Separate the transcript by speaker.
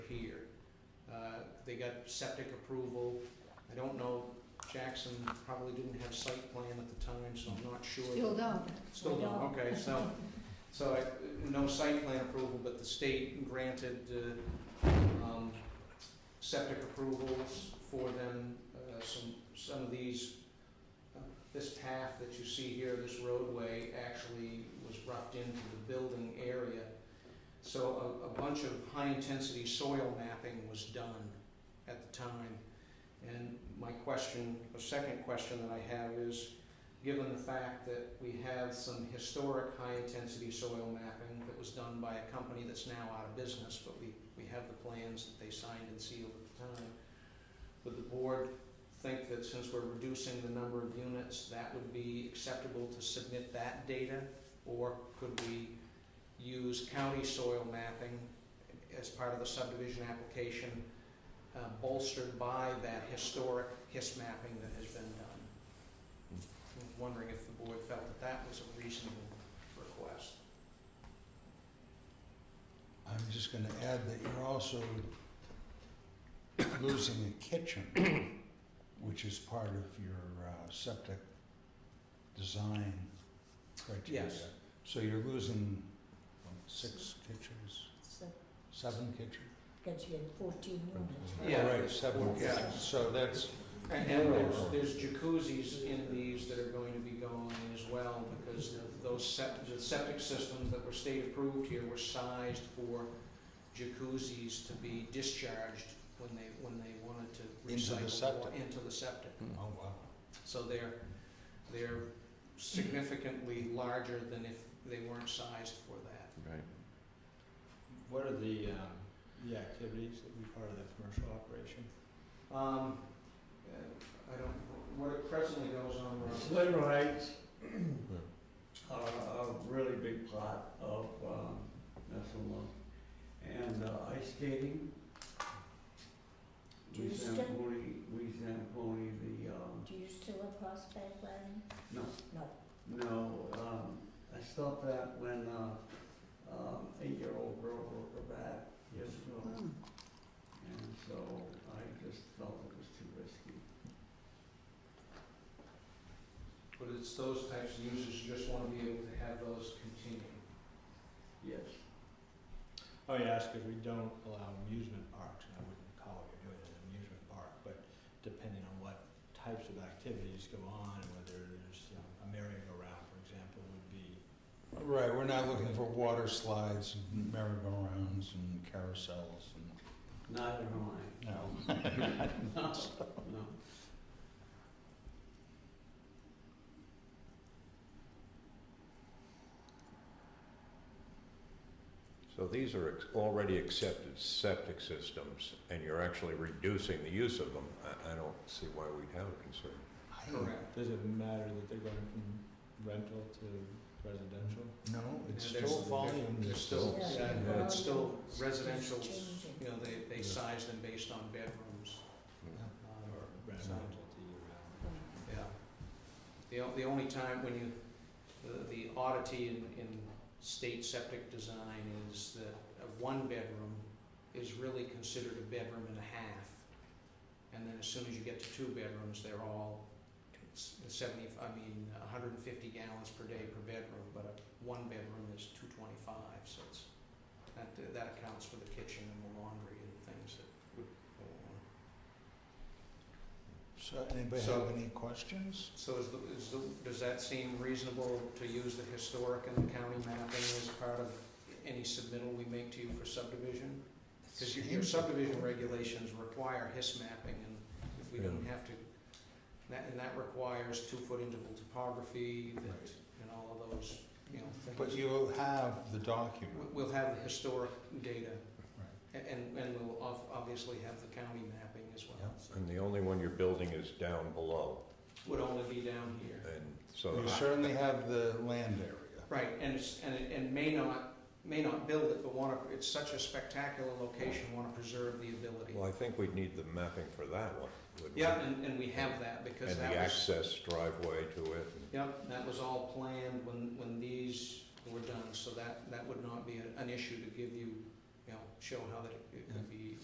Speaker 1: got, Uh, they got septic approval. I don't know, Jackson probably didn't have site plan at the time, so I'm not sure.
Speaker 2: Still don't.
Speaker 1: Still don't, okay, so, so I, no site plan approval, but the state granted, uh, um, septic approvals for them, uh, some, some of these, uh, this path that you see here, this roadway actually was roughed into the building area. So a, a bunch of high-intensity soil mapping was done at the time. And my question, a second question that I have is, given the fact that we have some historic high-intensity soil mapping that was done by a company that's now out of business, but we, we have the plans that they signed and sealed at the time. Would the board think that since we're reducing the number of units, that would be acceptable to submit that data? Or could we use county soil mapping as part of the subdivision application, uh, bolstered by that historic HIS mapping that has been done? I was wondering if the board felt that that was a reasonable request.
Speaker 3: I'm just gonna add that you're also losing a kitchen, which is part of your uh, septic design criteria.
Speaker 1: Yes.
Speaker 3: So you're losing, what, six kitchens,
Speaker 2: So,
Speaker 3: seven kitchens?
Speaker 2: because you had fourteen units, right?
Speaker 1: Yeah.
Speaker 3: Right, seven
Speaker 1: Yeah.
Speaker 3: kitchens, so that's,
Speaker 1: And, and there's, there's jacuzzis in these that are going to be going in as well, because the- those septic, the septic systems that were state approved here were sized for jacuzzis to be discharged when they, when they wanted to
Speaker 3: Into the
Speaker 1: recycle
Speaker 3: septic.
Speaker 1: water into the septic.
Speaker 3: oh wow.
Speaker 1: So they're, they're significantly larger than if they weren't sized for that.
Speaker 4: Right.
Speaker 5: What are the, um, the activities that would be part of the commercial operation?
Speaker 1: Um, uh, I don't, what presently goes on around
Speaker 5: Labor rights are Uh, a really big part of, um, national law. And uh, ice skating.
Speaker 2: Do you
Speaker 5: We
Speaker 2: still-
Speaker 5: Zamboni, we Zamboni the, um,
Speaker 2: Do you still have horseback riding?
Speaker 5: No.
Speaker 2: No.
Speaker 5: no, um, I stopped that when, uh, um, eight-year-old girl broke her back years ago.
Speaker 2: Oh.
Speaker 5: And so I just felt it was too risky.
Speaker 1: But it's those types of users, you just want to be able to have those continue.
Speaker 5: Yes. Oh, yes, because we don't allow amusement parks, and I wouldn't call what you're doing an amusement park, but depending on what types of activities go on, and whether there's, you know, a merry-go-round, for example, would be.
Speaker 3: Right, we're not looking for water slides, and merry-go-rounds, and carousels, and,
Speaker 5: Neither am I.
Speaker 3: no.
Speaker 5: No, no.
Speaker 4: So these are ex- already accepted septic systems, and you're actually reducing the use of them. I, I don't see why we'd have a concern.
Speaker 1: Correct.
Speaker 5: Does it matter that they're going from rental to residential?
Speaker 3: No, it's
Speaker 1: And there's-
Speaker 3: still volume.
Speaker 1: They're still,
Speaker 2: Yeah.
Speaker 1: yeah, but it's still residential,
Speaker 2: It's changing.
Speaker 1: you know, they, they
Speaker 4: Yeah.
Speaker 1: size them based on bedrooms. uh,
Speaker 5: Or residential to year-round?
Speaker 1: Yeah. The, o- the only time when you, the- the oddity in, in state septic design is that a one-bedroom is really considered a bedroom and a half. And then as soon as you get to two bedrooms, they're all s- seventy, I mean, hundred and fifty gallons per day per bedroom, but a one-bedroom is two twenty-five, so it's, that, that accounts for the kitchen and the laundry and things that would go on.
Speaker 3: So anybody
Speaker 1: So-
Speaker 3: have any questions?
Speaker 1: So is the, is the, does that seem reasonable to use the historic and the county mapping as part of any submittal we make to you for subdivision? Because your, your subdivision regulations require HIS mapping, and if we didn't have to, that, and that requires two-foot interval topography, that,
Speaker 3: Right.
Speaker 1: and all of those, you know, things.
Speaker 3: But you will have the
Speaker 1: We-
Speaker 3: document.
Speaker 1: We'll have the historic data, a- and, and we'll ob- obviously have the county mapping as well.
Speaker 3: Yeah.
Speaker 1: So
Speaker 4: And the only one you're building is down below,
Speaker 1: Would only be down here.
Speaker 4: and so.
Speaker 3: You certainly have the land area.
Speaker 1: Right, and it's, and it, and may not, may not build it, but wanna, it's such a spectacular location, wanna preserve the ability.
Speaker 4: Well, I think we'd need the mapping for that one, wouldn't we?
Speaker 1: Yeah, and, and we have that, because
Speaker 4: And
Speaker 1: that
Speaker 4: the
Speaker 1: was,
Speaker 4: access driveway to it. and-
Speaker 1: yep, that was all planned when, when these were done, so that, that would not be a- an issue to give you, you know, show how that it it could be